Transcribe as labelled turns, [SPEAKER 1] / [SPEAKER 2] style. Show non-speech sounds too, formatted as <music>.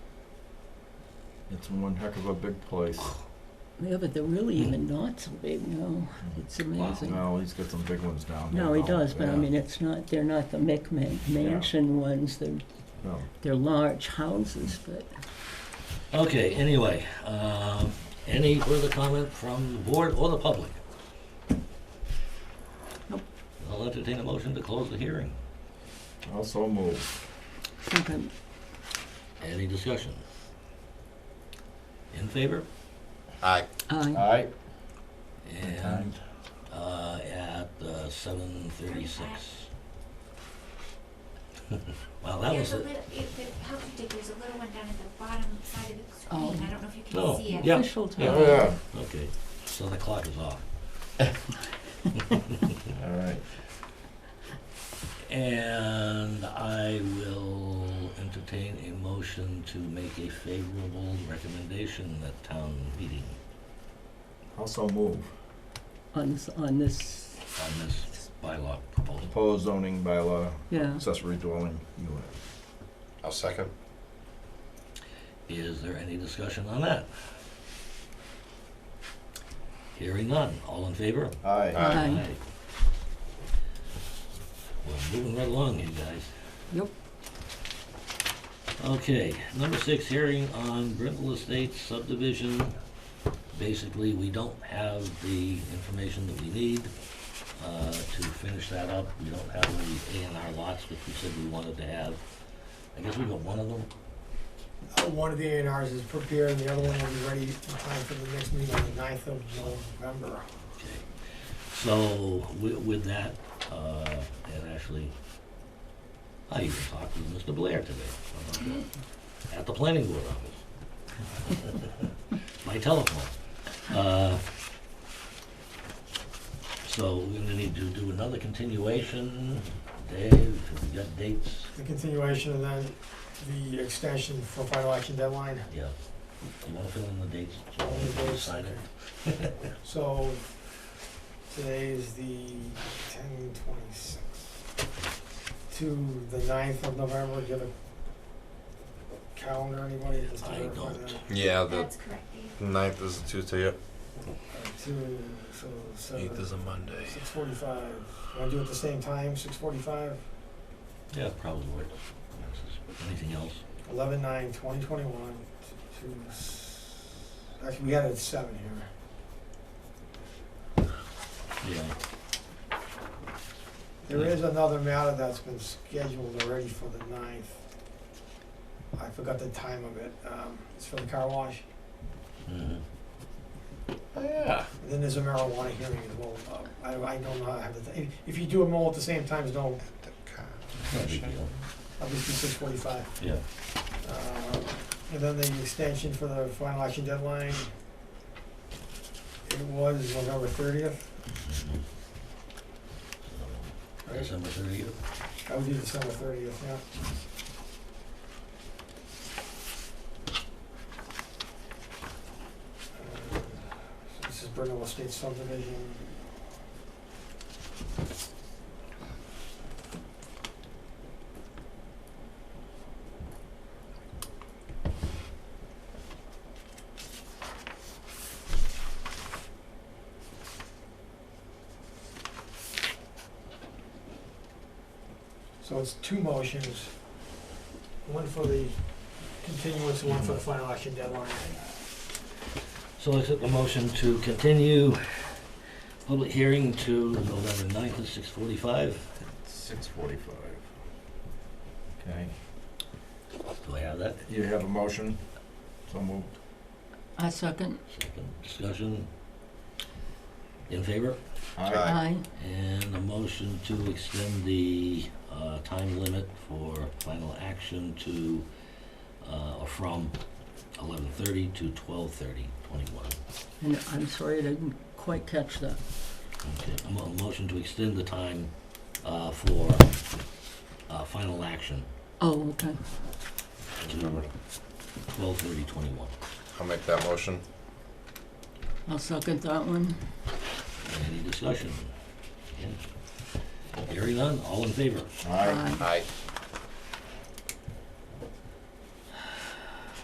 [SPEAKER 1] It's one heck of a big
[SPEAKER 2] <sighs>
[SPEAKER 1] place.
[SPEAKER 2] Yeah, but they're really even not so big, no. It's amazing.
[SPEAKER 1] No, he's got some big ones down there.
[SPEAKER 2] No, he
[SPEAKER 1] though.
[SPEAKER 2] does, but I
[SPEAKER 1] Yeah.
[SPEAKER 2] mean, it's not, they're not the McMan- mansion ones, they're,
[SPEAKER 1] No.
[SPEAKER 2] they're large houses, but
[SPEAKER 3] Okay, anyway, um, any further comment from the board or the public?
[SPEAKER 2] Nope.
[SPEAKER 3] I'll entertain a motion to close the hearing.
[SPEAKER 1] Also move.
[SPEAKER 2] sometimes,
[SPEAKER 3] Any discussion? In favor?
[SPEAKER 4] Aye.
[SPEAKER 2] I,
[SPEAKER 4] Aye.
[SPEAKER 3] And, uh, at, uh, seven thirty-six. <laughs> Wow, that
[SPEAKER 5] There's
[SPEAKER 3] was
[SPEAKER 5] a
[SPEAKER 3] it.
[SPEAKER 5] little, if it helps you, Dick, there's a little one down at the bottom side of the
[SPEAKER 2] Oh.
[SPEAKER 5] screen, I don't know if you
[SPEAKER 3] Oh,
[SPEAKER 5] can see it.
[SPEAKER 3] yeah.
[SPEAKER 2] official
[SPEAKER 3] Yeah.
[SPEAKER 1] Oh,
[SPEAKER 2] time.
[SPEAKER 4] Yeah.
[SPEAKER 3] Okay, so the clock is off.
[SPEAKER 1] All right.
[SPEAKER 3] And I will entertain a motion to make a favorable recommendation at town meeting
[SPEAKER 1] Also move.
[SPEAKER 2] On, s- on this,
[SPEAKER 3] on this bylaw proposal.
[SPEAKER 1] Proposed zoning bylaw,
[SPEAKER 2] yeah.
[SPEAKER 1] accessory dwelling unit.
[SPEAKER 4] I'll second.
[SPEAKER 3] Is there any discussion on that? Hearing none, all in favor?
[SPEAKER 1] Aye.
[SPEAKER 4] Aye.
[SPEAKER 2] Aye.
[SPEAKER 3] We're moving right along, you guys.
[SPEAKER 2] Yep.
[SPEAKER 3] Okay, number six, hearing on Brittle Estates subdivision. Basically, we don't have the information that we need uh, to finish that up. We don't have any A and R lots, which we said we wanted to have. I guess we got one of them.
[SPEAKER 6] Uh, One of the A and Rs is prepared, and the other one will be ready in time for the next meeting on the ninth of November.
[SPEAKER 3] Okay. So with, with that, uh, and actually, I even talked with Mr. Blair today about that, at the planning board office. By telephone. Uh, So we're gonna need to do another continuation. Dave, have you got dates?
[SPEAKER 6] The continuation and then the extension for final action deadline.
[SPEAKER 3] Yeah. You wanna fill in the dates? so
[SPEAKER 6] All
[SPEAKER 3] we
[SPEAKER 6] of
[SPEAKER 3] can
[SPEAKER 6] those.
[SPEAKER 3] sign it?
[SPEAKER 6] So today is the ten twenty-six to the ninth of November. Do you have a calendar, anybody? Just to
[SPEAKER 3] I
[SPEAKER 6] verify
[SPEAKER 3] don't.
[SPEAKER 6] that.
[SPEAKER 4] Yeah, the
[SPEAKER 5] That's correct, Dave.
[SPEAKER 4] ninth is a Tuesday, yep.
[SPEAKER 6] To, so
[SPEAKER 4] Eighth
[SPEAKER 6] seven,
[SPEAKER 4] is a Monday.
[SPEAKER 6] six forty-five. Want to do it at the same time, six forty-five?
[SPEAKER 3] Yeah, probably. works. Anything else?
[SPEAKER 6] eleven nine twenty twenty one to, s- actually, we had it at seven here.
[SPEAKER 3] Yeah.
[SPEAKER 6] There is another matter that's been scheduled already for the ninth. I forgot the time of it, um, it's for the car wash,
[SPEAKER 3] Mhm.
[SPEAKER 4] Yeah.
[SPEAKER 6] and then there's a marijuana hearing as well, uh, I, I don't know, I have the, ti- if you do them all at the same times, don't,
[SPEAKER 3] No big deal.
[SPEAKER 6] I'll just do six forty-five.
[SPEAKER 3] Yeah.
[SPEAKER 6] Uh, And then the extension for the final action deadline, it was November thirtieth,
[SPEAKER 3] So, December thirtieth,
[SPEAKER 6] I would do December thirtieth, yeah. Uh, so This is Brittle Estate subdivision. So it's two motions, one for the continuance, one for the final action deadline.
[SPEAKER 3] So I took the motion to continue public hearing to November ninth at six forty-five.
[SPEAKER 1] Six forty-five. Okay.
[SPEAKER 3] Do I have that?
[SPEAKER 1] You have a motion? So moved.
[SPEAKER 2] I second,
[SPEAKER 3] Second discussion. In favor?
[SPEAKER 4] Aye.
[SPEAKER 2] aye.
[SPEAKER 3] And a motion to extend the, uh, time limit for final action to, uh, or from eleven thirty to twelve thirty, twenty-one.
[SPEAKER 2] And I'm sorry, I didn't quite catch that.
[SPEAKER 3] Okay, a mo- a motion to extend the time, uh, for, uh, final action
[SPEAKER 2] Oh, okay.
[SPEAKER 3] to twelve thirty, twenty-one.
[SPEAKER 4] I'll make that motion.
[SPEAKER 2] I'll second that one.
[SPEAKER 3] Any discussion? Hearing none, all in favor?
[SPEAKER 1] Aye.
[SPEAKER 2] Aye.
[SPEAKER 4] Aye.